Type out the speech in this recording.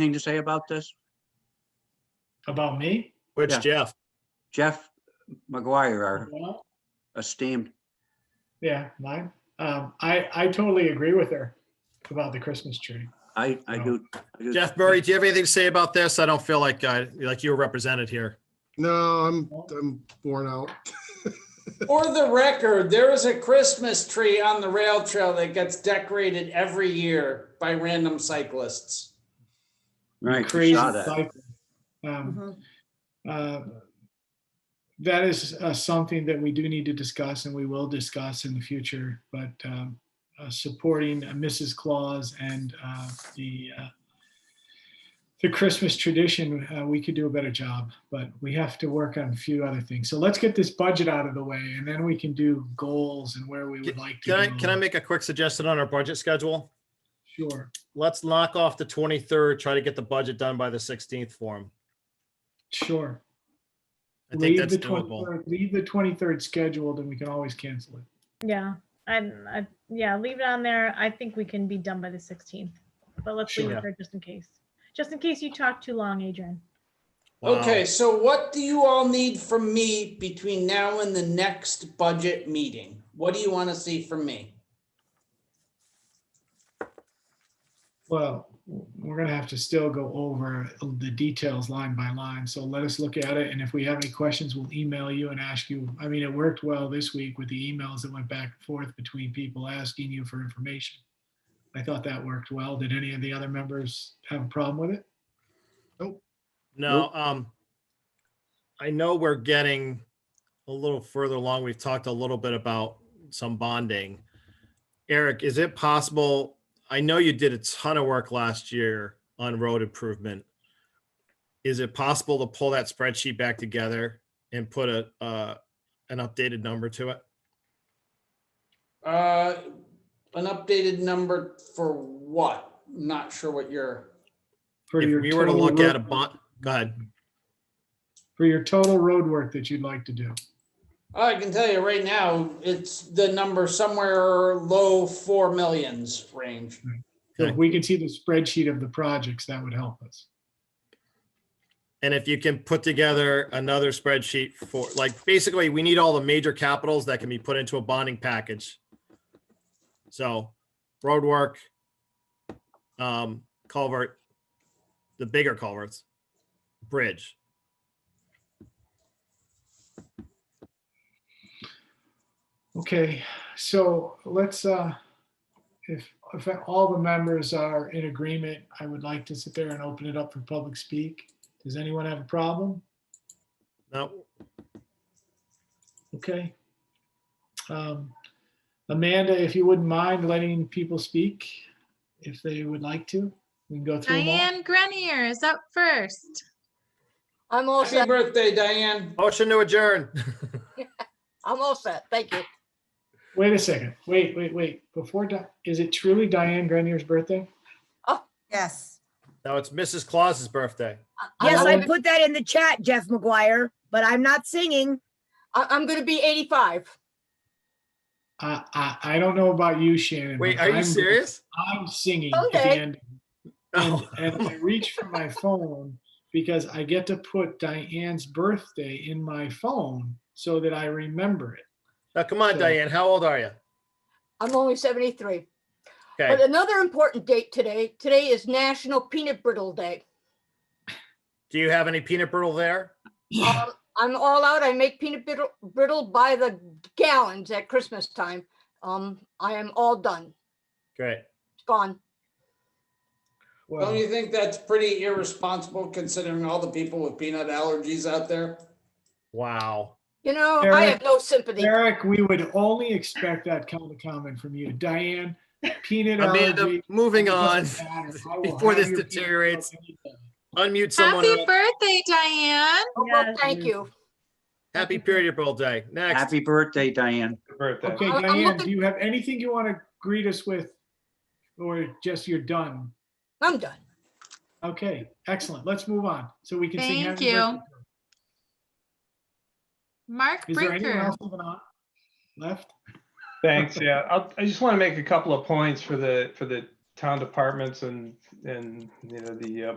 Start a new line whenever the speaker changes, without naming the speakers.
anything to say about this?
About me?
Which
Yeah.
Jeff?
Jeff McGuire, our
Well,
esteemed,
Yeah, mine. Um, I, I totally agree with her about the Christmas tree.
I, I do. I do-
Jeff Murray, do you have anything to say about this? I don't feel like, I like you were represented here.
No, I'm, I'm worn out.
For the record, there is a Christmas tree on the rail trail that gets decorated every year by random cyclists.
Right, we
Crazy
saw that.
cycle. Um, uh, That is uh, something that we do need to discuss and we will discuss in the future, but um, uh, supporting uh, Mrs. Claus and uh, the, uh, the Christmas tradition, uh, we could do a better job, but we have to work on a few other things. So let's get this budget out of the way and then we can do goals and where we would like to.
Can I,
go.
can I make a quick suggestion on our budget schedule?
Sure,
Let's knock off the 23rd, try to get the budget done by the 16th for him.
sure.
I think
Leave
that's
the
doable.
23rd Leave the 23rd scheduled and we can always cancel it.
Yeah, I'm, I, yeah, leave it on there. I think we can be done by the sixteenth, but let's leave
Sure.
it there just in case. Just in case you talk too long, Adrian.
Wow.
Okay, so what do you all need from me between now and the next budget meeting? What do you want to see from me?
Well, we're gonna have to still go over the details line by line, so let us look at it, and if we have any questions, we'll email you and ask you. I mean, it worked well this week with the emails that went back and forth between people asking you for information. I thought that worked well. Did any of the other members have a problem with it?
No, um, I know we're getting a little further along. We've talked a little bit about some bonding. Eric, is it possible? I know you did a ton of work last year on road improvement. Is it possible to pull that spreadsheet back together and put a, uh, an updated number to it?
Uh, an updated number for what? Not sure what you're,
For your
If we were to
total
look at a
road-
bond, go ahead.
For your total road work that you'd like to do.
oh, I can tell you right now, it's the number somewhere low four millions range.
So
Okay.
If we can see the spreadsheet of the projects, that would help us.
And if you can put together another spreadsheet for, like, basically, we need all the major capitals that can be put into a bonding package. So roadwork, um, culvert, the bigger culverts, bridge.
Okay, so let's, uh, if, if all the members are in agreement, I would like to sit there and open it up for public speak. Does anyone have a problem?
Now,
Okay. Um, Amanda, if you wouldn't mind letting people speak, if they would like to, we can go through them all.
Diane Grenier is up first.
I'm all
Happy
set.
birthday, Diane.
motion to adjourn.
I'm all set. Thank you.
Wait a second, wait, wait, wait, before, Di- is it truly Diane Grenier's birthday?
Yes.
Now it's Mrs. Claus's birthday.
I'm
Yes, I
gonna-
put that in the chat, Jeff McGuire, but I'm not singing.
I- I'm going to be 85.
I, I, I don't know about you, Shannon.
Wait,
but
are you
I'm-
serious?
I'm singing at the
Okay.
end and,
No.
and I reach for my phone because I get to put Diane's birthday in my phone so that I remember it.
Now, come on,
So-
Diane, how old are you?
I'm only 73. But
Okay,
another important date today, today is National Peanut Brittle Day.
do you have any peanut brittle there?
Um, I'm all out. I make peanut brittle, brittle by the gallons at Christmas time. Um, I am all done.
Great.
It's gone.
Well,
Oh,
Don't you think that's pretty irresponsible considering all the people with peanut allergies out there?
Wow.
You know, I
Eric-
have no sympathy.
Eric, we would only expect that kind of comment from you. Diane, peanut
Amanda,
allergy.
moving
it
on,
doesn't matter. I will
before
have
this
your peanut brittle
deteriorates,
any day.
unmute someone.
Happy
else.
birthday, Diane.
Oh, Well,
Yes.
thank you.
Happy period birthday. day. Next,
Happy birthday, Diane.
Okay,
I'm- I'm
Diane,
looking-
do you have anything you want to greet us with? Or just you're done?
I'm done.
Okay, excellent. Let's move on so we can sing.
Thank
happy
you.
birthday to her.
Mark
Is there anyone
Brinker.
else living on left?
Thanks, yeah. I'll, I just want to make a couple of points for the, for the town departments and, and, you know, the uh,